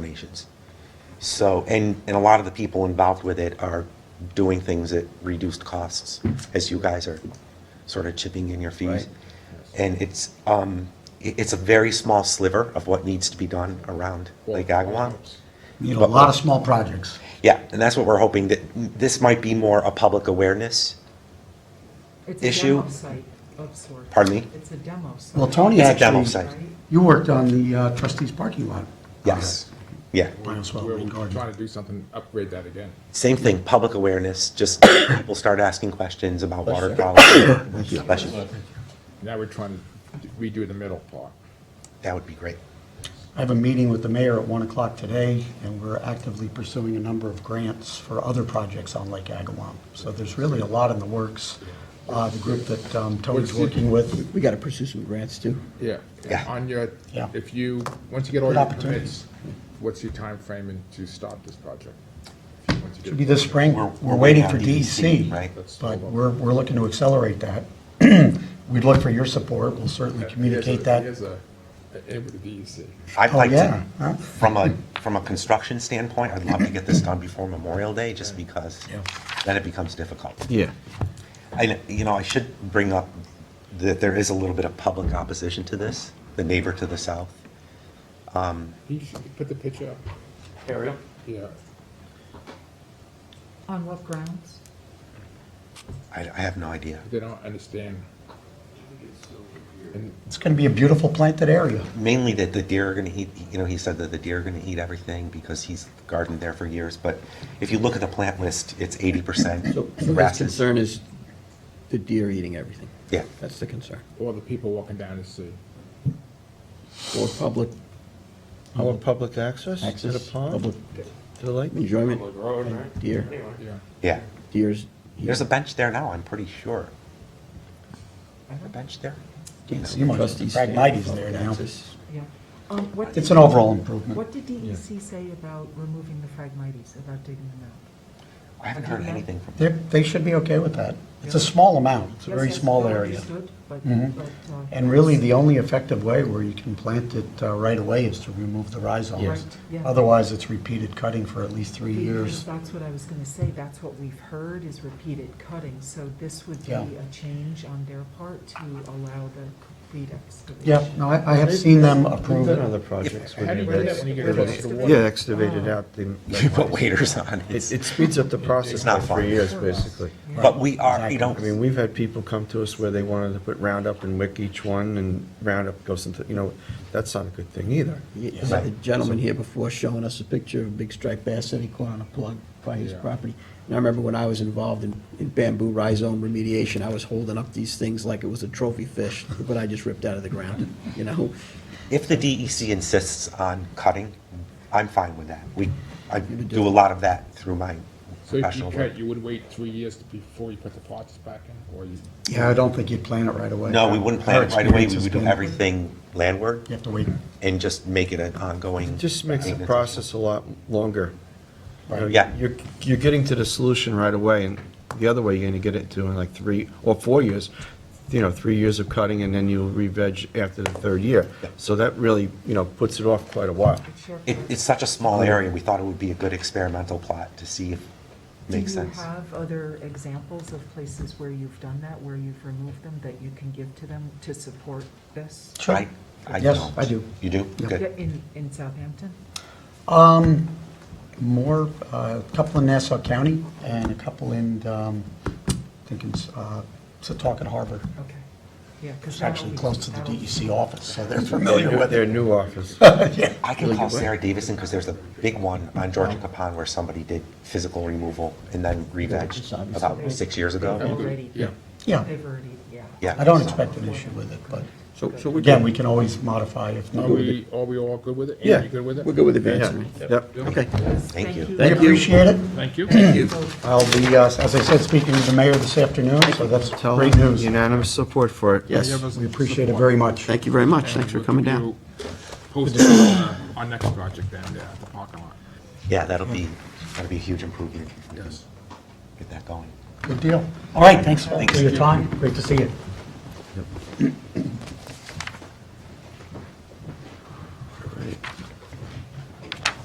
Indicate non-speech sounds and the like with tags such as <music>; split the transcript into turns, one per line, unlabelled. donations. So, and, and a lot of the people involved with it are doing things at reduced costs, as you guys are sort of chipping in your fees.
Right.
And it's, um, i it's a very small sliver of what needs to be done around Lake Agawam.
You know, a lot of small projects.
Yeah, and that's what we're hoping, that this might be more a public awareness.
It's a
issue?
demo site of sorts.
Pardon me?
It's a demo site.
Well, Tony
It's a demo
actually,
site.
Right?
you worked on the uh, trustees parking lot.
Yes, yeah.
Bioswale
We're
Lane Garden.
trying to do something, upgrade that again.
Same thing, public awareness, just <coughs> people start asking questions about water <coughs> quality. Bless you.
Now we're trying to redo the middle part.
That would be great.
I have a meeting with the mayor at 1 o'clock today, and we're actively pursuing a number of grants for other projects on Lake Agawam. So there's really a lot in the works. Uh, The group that um, Tony's working with,
We gotta pursue some grants too.
Yeah.
Yeah.
On your,
Yeah.
if you, once you get all
Good
your
opportunities.
permits, what's your time timeframe in- to start this project? If you- once you
should
get-
be this spring,
We're-
we're waiting for
on DEC,
DEC.
right?
But we're, we're looking to accelerate that. <clears throat> We'd look for your support, we'll certainly
Here's
communicate
a-
that.
Here's a, a- with the DEC.
I'd
Oh,
like
yeah,
to,
huh?
from a, from a construction standpoint, I'd love to get this done before Memorial Day, just because
Yeah.
then it becomes difficult.
Yeah.
I, you know, I should bring up that there is a little bit of public opposition to this, the neighbor to the south.
You should put the picture up. Ariel? Yeah.
On what grounds?
I, I have no idea.
They don't understand. And
It's going to be a beautiful planted area.
Mainly that the deer are gonna eat, you know, he said that the deer are gonna eat everything because he's gardened there for years, but if you look at the plant list, it's eighty percent
So so his
grasses.
concern is the deer eating everything.
Yeah.
That's the concern.
all the people walking down the street.
Or public
Our public access to the
access, public
pond, to the lake?
enjoyment,
Road,
and
right?
deer,
Anyway.
Yeah.
Yeah,
deers.
there's a bench there now, I'm pretty sure. Is there a bench there?
Can't see much.
Trustees stand for
Phragmites there
public
now.
access.
Yeah. Um, what
It's an
did- E
overall improvement.
What did DEC say about removing the phragmites, about digging them out?
I haven't heard anything <laughs> from
They're- They should be okay with that. It's a small amount, it's a
Yes,
very
that's
small
well
area.
Understood, but,
Mhm.
but. uh,
And really, the only effective way where you can plant it uh, right away is to remove the
Yes.
rhizomes.
Right, yeah.
Otherwise, it's repeated cutting for at least three
Because
years.
that's what I was gonna say, that's what we've heard is repeated cutting, so this would be
Yeah.
a change on their part to allow the complete excavation.
Yeah, no, I I have seen them approve
Proven
it.
other projects
How
would
do
be
you do that
this.
when you get rid of the water?
Yeah, excavated
<laughs>
out the.
You put waiters on
It,
it.
it speeds up the process
It's not
by
fun.
three years, basically.
But we are, you know,
I mean, we've had people come to us where they wanted to put Roundup and wick each one, and Roundup goes into, you know, that's not a good thing either.
You you had the gentleman here before showing us a picture of a big striped bass that he caught on a plug by his
Yeah.
property. And I remember when I was involved in in bamboo rhizome remediation, I was holding up these things like it was a trophy fish, but I just ripped out of the ground, you know?
if the DEC insists on cutting, I'm fine with that. We, I do a lot of that through my
So if you
professional work.
cut, you would wait three years before you put the parts back in, or you?
Yeah, I don't think you'd plant it right away.
No, we wouldn't
Our
plant it right away,
experience
we
has
would do
been-
everything landward
You have to wait.
and just make it an ongoing.
Just makes the
maintenance.
process a lot longer. You know,
Yeah.
You're, you're getting to the solution right away, and the other way, you're gonna get it to in like three or four years, you know, three years of cutting, and then you'll re-veg after the third year.
Yeah.
So that really, you know, puts it off quite a while.
It's your
It,
part.
it's such a small area, we thought it would be a good experimental plot to see if it makes sense.
Do you have other examples of places where you've done that, where you've removed them, that you can give to them to support this?
Sure.
I- I
Yes,
don't.
I do.
You do?
Yeah.
Good.
Yeah, In, in Southampton?
Um, more, uh, a couple in Nassau County and a couple in, um, I think it's, uh, Setauket Harbor.
Okay, yeah, because.
It's actually close to the E DEC office, so they're familiar with
Their
it.
new office.
Yeah.
I can call Sarah Davison because there's a big one on Georgia Capon where somebody did physical removal and then re-vegged about six years ago.
Already.
Yeah.
Yeah.
They've already, yeah.
Yeah.
I don't expect an issue with it, but
So, so we're
again,
good.
we can always modify if
Are
needed.
we, are we all good with it? Ann,
Yeah.
You good with it?
We're good with
Yeah,
advancing. right?
Yep.
Okay.
Thank you.
We
Thank you.
appreciate it.
Thank you.
I'll be, uh, as I said, speaking to the mayor this afternoon, so that's
Tell
great
them
news.
Unanimous support for it.
Yes,
We appreciate it very much.
thank you very much. Thanks for coming down.
Post it on uh, our next project down there at the parking lot.
Yeah, that'll be, that'll be a huge improvement. if we can
Yes.
Get that going.
Good deal. All right, thanks for
Thanks.
your time. Great to see you.